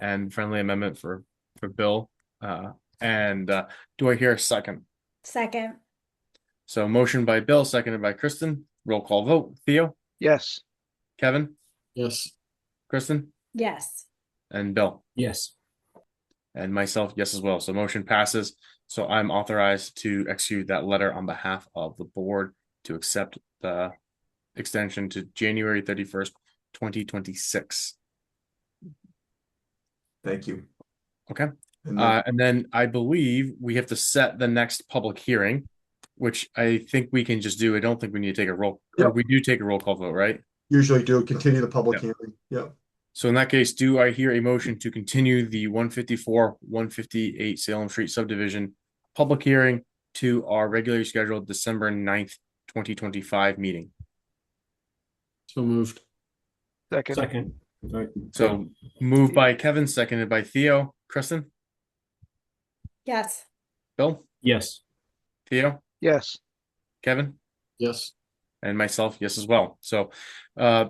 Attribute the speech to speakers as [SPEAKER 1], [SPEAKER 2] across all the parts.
[SPEAKER 1] and friendly amendment for, for Bill. Uh, and, uh, do I hear a second?
[SPEAKER 2] Second,
[SPEAKER 1] So motion by Bill, seconded by Kristen, roll call vote, Theo,
[SPEAKER 3] Yes,
[SPEAKER 1] Kevin,
[SPEAKER 4] Yes.
[SPEAKER 1] Kristen,
[SPEAKER 2] yes,
[SPEAKER 1] and Bill.
[SPEAKER 4] Yes.
[SPEAKER 1] And myself, yes as well. So motion passes. So I'm authorized to execute that letter on behalf of the board to accept the extension to January thirty-first, twenty twenty-six.
[SPEAKER 5] Thank you.
[SPEAKER 1] Okay.
[SPEAKER 5] And
[SPEAKER 1] Uh, and then I believe we have to set the next public hearing, which I think we can just do. I don't think we need to take a roll. Or
[SPEAKER 5] Yep.
[SPEAKER 1] we do take a roll call vote, right?
[SPEAKER 5] usually do continue the public
[SPEAKER 1] Yep.
[SPEAKER 5] hearing. Yep.
[SPEAKER 1] So in that case, do I hear a motion to continue the one fifty-four, one fifty-eight Salem Street subdivision public hearing to our regularly scheduled December 9th, twenty twenty-five meeting?
[SPEAKER 4] So moved.
[SPEAKER 3] second,
[SPEAKER 4] Second. Right.
[SPEAKER 1] So moved by Kevin, seconded by Theo. Kristen,
[SPEAKER 2] yes,
[SPEAKER 1] Bill,
[SPEAKER 4] Yes.
[SPEAKER 1] Theo,
[SPEAKER 3] yes,
[SPEAKER 1] Kevin?
[SPEAKER 4] Yes.
[SPEAKER 1] and myself, yes, as well. So, uh,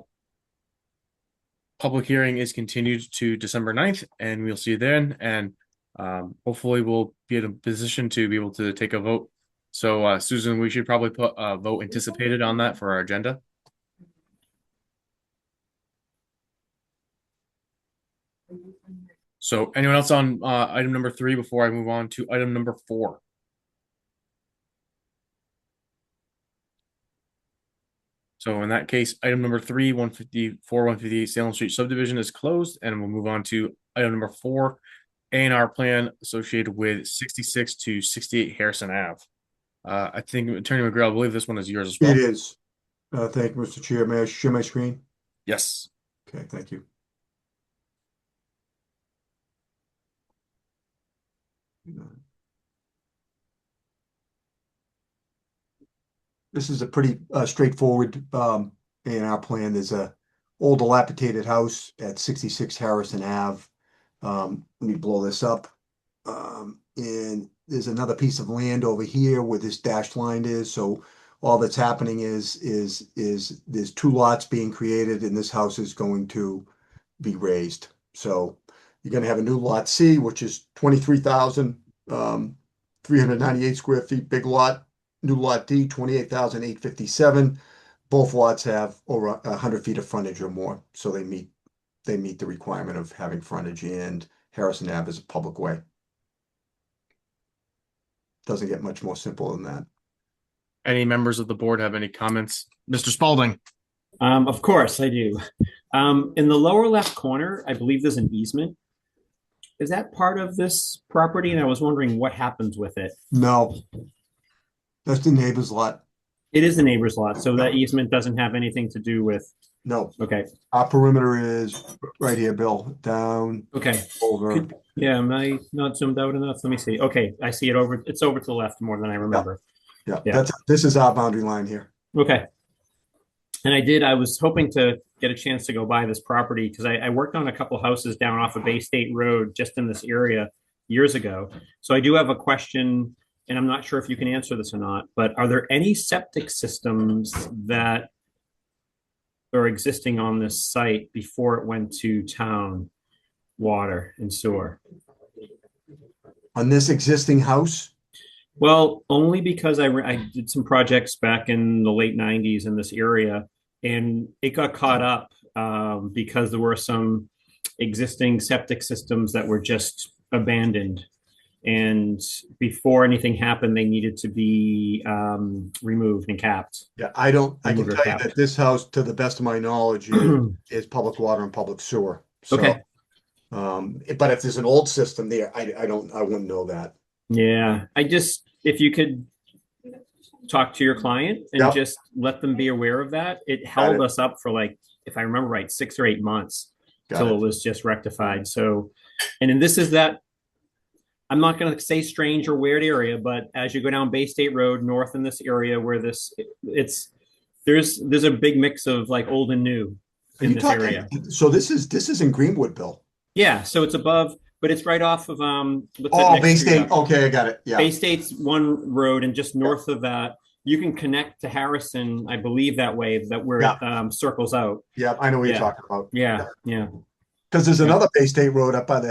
[SPEAKER 1] public hearing is continued to December 9th, and we'll see you then. And um, hopefully, we'll be in a position to be able to take a vote. So, uh, Susan, we should probably put a vote anticipated on that for our agenda. So, anyone else on uh, item number three before I move on to item number four? So in that case, item number three, one fifty-four, one fifty-eight Salem Street subdivision is closed, and we'll move on to item number four. A and R plan associated with sixty-six to sixty-eight Harrison Ave. Uh, I think Attorney McGrail, I believe this one is yours as well.
[SPEAKER 5] It is. Uh, thank you, Mr. Chair. May I share my screen?
[SPEAKER 1] Yes,
[SPEAKER 5] Okay, thank you. This is a pretty uh, straightforward um, A and R plan. There's a old dilapidated house at 66 Harrison Ave. Um, Let me blow this up. Um, And there's another piece of land over here where this dashed line is. So all that's happening is, is, is there's two lots being created and this house is going to be raised. So you're gonna have a new lot C, which is twenty-three thousand, um, three hundred ninety-eight square feet, big lot. New lot D, twenty-eight thousand eight fifty-seven. Both lots have over a hundred feet of frontage or more, so they meet, they meet the requirement of having frontage and Harrison Ave is a public way. Doesn't get much more simple than that.
[SPEAKER 1] any members of the board have any comments? Mr. Spalding,
[SPEAKER 6] Um, of course, I do. Um, in the lower left corner, I believe there's an easement. Is that part of this property? And I was wondering what happens with it.
[SPEAKER 5] No. That's the neighbor's lot.
[SPEAKER 6] It is the neighbor's lot, so that easement doesn't have anything to do with,
[SPEAKER 5] No,
[SPEAKER 6] okay,
[SPEAKER 5] our perimeter is right here, Bill, down
[SPEAKER 6] okay.
[SPEAKER 5] over.
[SPEAKER 6] Could- Yeah, am I not zoomed out enough? Let me see. Okay, I see it over, it's over to the left more than I remember.
[SPEAKER 5] Yeah,
[SPEAKER 6] yeah.
[SPEAKER 5] that's, this is our boundary line here.
[SPEAKER 6] Okay. And I did, I was hoping to get a chance to go buy this property because I, I worked on a couple houses down off of Bay State Road just in this area years ago. So I do have a question, and I'm not sure if you can answer this or not, but are there any septic systems that are existing on this site before it went to town water and sewer?
[SPEAKER 5] On this existing house,
[SPEAKER 6] Well, only because I, re- I did some projects back in the late 90s in this area, and it got caught up um, because there were some existing septic systems that were just abandoned. And before anything happened, they needed to be um, removed and capped.
[SPEAKER 5] yeah, I don't, I can
[SPEAKER 6] Remove
[SPEAKER 5] tell
[SPEAKER 6] your
[SPEAKER 5] you
[SPEAKER 6] cap.
[SPEAKER 5] that this house, to the best of my knowledge, is- is public water and public sewer. So,
[SPEAKER 6] Okay.
[SPEAKER 5] Um, but if there's an old system there, I, I don't, I wouldn't know that.
[SPEAKER 6] Yeah, I just, if you could talk to your client
[SPEAKER 5] Yep.
[SPEAKER 6] and just let them be aware of that, it held
[SPEAKER 5] it.
[SPEAKER 6] us up for like, if I remember right, six or eight months
[SPEAKER 5] Got
[SPEAKER 6] till
[SPEAKER 5] it.
[SPEAKER 6] it was just rectified. So, and then this is that, I'm not gonna say strange or weird area, but as you go down Bay State Road north in this area where this, it's, there's, there's a big mix of like old and new
[SPEAKER 5] Are
[SPEAKER 6] in
[SPEAKER 5] you
[SPEAKER 6] this
[SPEAKER 5] talking-
[SPEAKER 6] area.
[SPEAKER 5] So this is, this is in Greenwood, Bill.
[SPEAKER 6] Yeah, so it's above, but it's right off of, um. what's that
[SPEAKER 5] Oh,
[SPEAKER 6] next
[SPEAKER 5] Bay
[SPEAKER 6] street
[SPEAKER 5] State,
[SPEAKER 6] up?
[SPEAKER 5] okay, I got it,
[SPEAKER 6] Bay
[SPEAKER 5] yeah.
[SPEAKER 6] State's one road, and just north of that, you can connect to Harrison, I believe, that way, that where it um, circles out.
[SPEAKER 5] Yeah, I know what you're
[SPEAKER 6] Yeah.
[SPEAKER 5] talking about.
[SPEAKER 6] Yeah, yeah.
[SPEAKER 5] Because there's another Bay State Road up by the